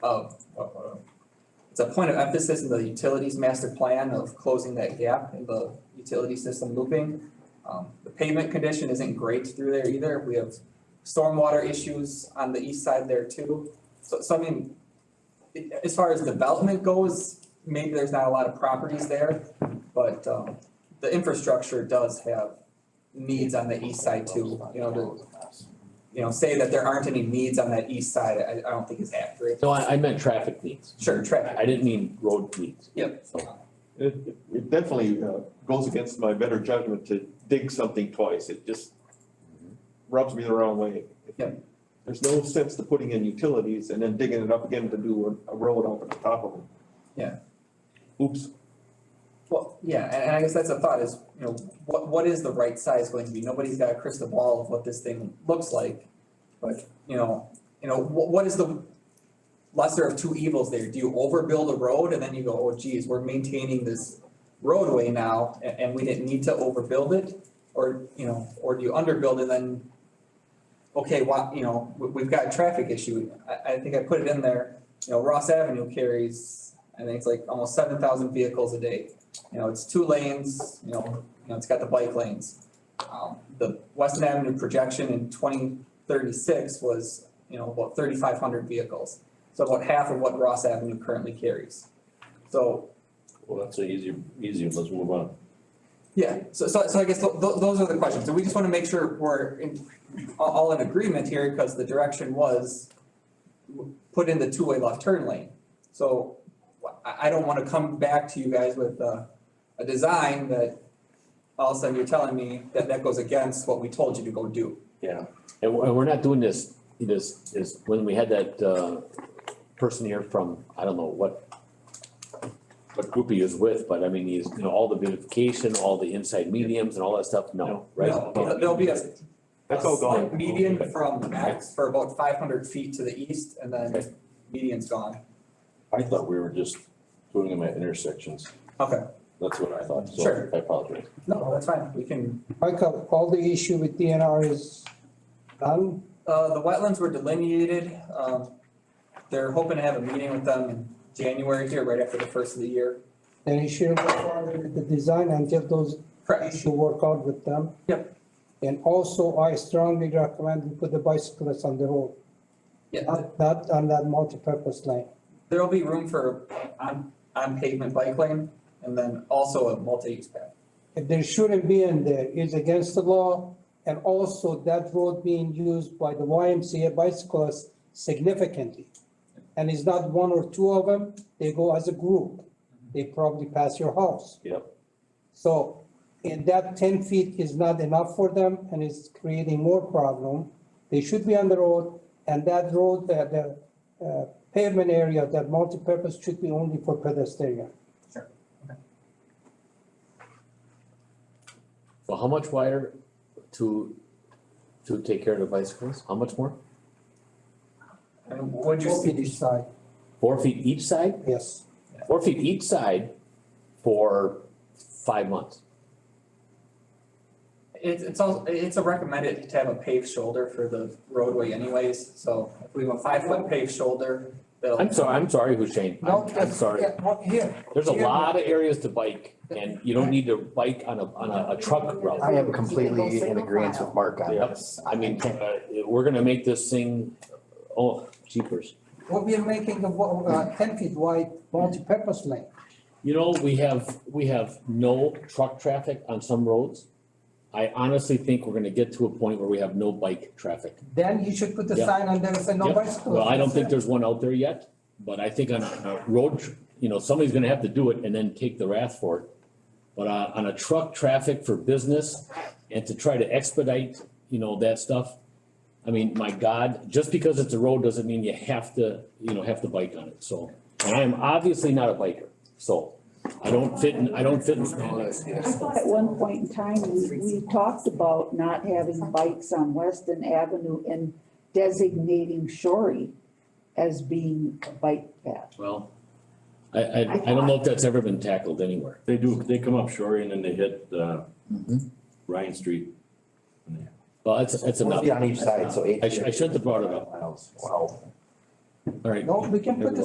of, uh, it's a point of emphasis in the utilities master plan of closing that gap in the utility system looping. Um, the pavement condition isn't great through there either. We have stormwater issues on the east side there too. So, so I mean, it- as far as development goes, maybe there's not a lot of properties there, but, um, the infrastructure does have needs on the east side too, you know, to, you know, say that there aren't any needs on that east side, I, I don't think is accurate. No, I, I meant traffic needs. Sure, traffic. I didn't mean road needs. Yep. It, it definitely uh, goes against my better judgment to dig something twice. It just rubs me the wrong way. Yeah. There's no sense to putting in utilities and then digging it up again to do a, a road up at the top of them. Yeah. Oops. Well, yeah, and, and I guess that's a thought is, you know, what, what is the right size going to be? Nobody's got a crystal ball of what this thing looks like. But, you know, you know, what, what is the lesser of two evils there? Do you overbuild a road and then you go, oh geez, we're maintaining this roadway now a- and, we didn't need to overbuild it? Or, you know, or do you underbuild and then, okay, why, you know, we, we've got a traffic issue. I, I think I put it in there, you know, Ross Avenue carries, I think it's like almost seven thousand vehicles a day you know, it's two lanes, you know, you know, it's got the bike lanes. Um, the Weston Avenue projection in twenty thirty-six was, you know, about thirty-five hundred vehicles. So about half of what Ross Avenue currently carries. So, Well, that's an easy, easy, one. let's move on. yeah, so, so, so I guess tho- tho- those are the questions, and we just wanna make sure we're in, all, all in agreement here, because the direction was w- put in the two-way left turn lane. So, wh- I, I don't wanna come back to you guys with a, a design that all of a sudden you're telling me that that goes against what we told you to go do. Yeah, and we're, and we're not doing this, this, this, when we had that, uh, person here from, I don't know what, what group he was with, but I mean, he's, you know, all the beautification, all the inside mediums and all that stuff, no, right? No, there- There'll be a. That's all a slight gone. Median from max for about five hundred feet to the east, and then median's gone. I thought we were just doing them at intersections. Okay. That's what I thought, so Sure. I apologize. No, that's fine, we can Michael, all the issue with DNR is done, Uh, the wetlands were delineated, um, they're hoping to have a meeting with them in January here, right after the first of the year. then you shouldn't go forward with the design until those Correct, issue work out with them. Yep. And also, I strongly recommend we put the bicyclists on the road, yeah, not, not on that multi-purpose lane. there'll be room for on, on pavement bike lane, and then also a multi-use path. If there shouldn't be in there, it's against the law, and also that road being used by the YMCA bicyclists significantly. And it's not one or two of them, they go as a group, they probably pass your house. Yep. So, and that ten feet is not enough for them, and it's creating more problem. They should be on the road, and that road, the, the uh, pavement area, that multipurpose should be only for pedestrian. Well, how much wider to, to take care of the bicycles? How much more? And what'd you Both see? feet each side, Four feet each side? yes. Four feet each side for five months. It's, it's all, it's a recommended to have a paved shoulder for the roadway anyways, so if we have a five-foot paved shoulder, that'll. I'm sorry, I'm sorry, Hussein, No, I'm, I'm that's- sorry. yeah, well, Here, There's a Yeah. lot of areas to bike and you don't need to bike on a, on a, a truck route. I am completely in agreement with Mark on Yep. this. I mean, uh, we're gonna make this thing, oh, jeepers. what we are making, a wa- uh, ten feet wide multipurpose lane. You know, we have, we have no truck traffic on some roads. I honestly think we're gonna get to a point where we have no bike traffic. Then you should put the Yeah. sign on there, say no Yep. bicycles. Well, I don't think there's one out there yet, but I think on a road, tr- you know, somebody's gonna have to do it and then take the wrath for it. But uh, on a truck traffic for business and to try to expedite, you know, that stuff. I mean, my God, just because it's a road doesn't mean you have to, you know, have to bike on it, so. And I am obviously not a biker, so I don't fit in, I don't fit in. standards. I thought at one point in time, we, we talked about not having bikes on Weston Avenue and designating Shorey as being a bike path. Well, I, I, I don't know if that's ever been tackled anywhere. They do, they come up Shorey and then they hit, uh, Ryan Street. Well, that's, that's enough. Be on each side, so eight. I should, I should have brought it up, Miles. Wow. all right. No, we can put the